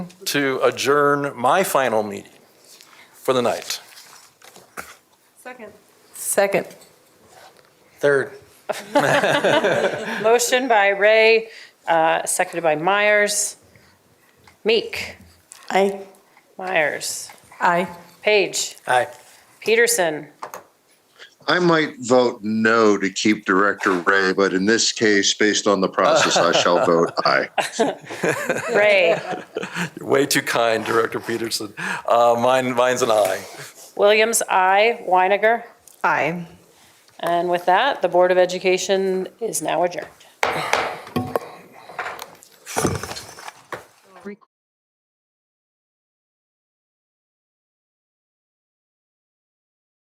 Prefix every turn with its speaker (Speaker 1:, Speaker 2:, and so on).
Speaker 1: to adjourn my final meeting for the night.
Speaker 2: Second.
Speaker 3: Second.
Speaker 1: Third.
Speaker 2: Motion by Ray, uh, seconded by Myers. Meek,
Speaker 3: Aye.
Speaker 2: Myers,
Speaker 3: Aye.
Speaker 2: Page,
Speaker 1: Aye.
Speaker 2: Peterson,
Speaker 4: I might vote no to keep Director Ray, but in this case, based on the process, I shall vote aye.
Speaker 2: Ray,
Speaker 1: You're way too kind, Director Peterson. Uh, Mine, mine's an aye.
Speaker 2: Williams, I, Weininger.
Speaker 3: Aye.
Speaker 2: And with that, the Board of Education is now adjourned.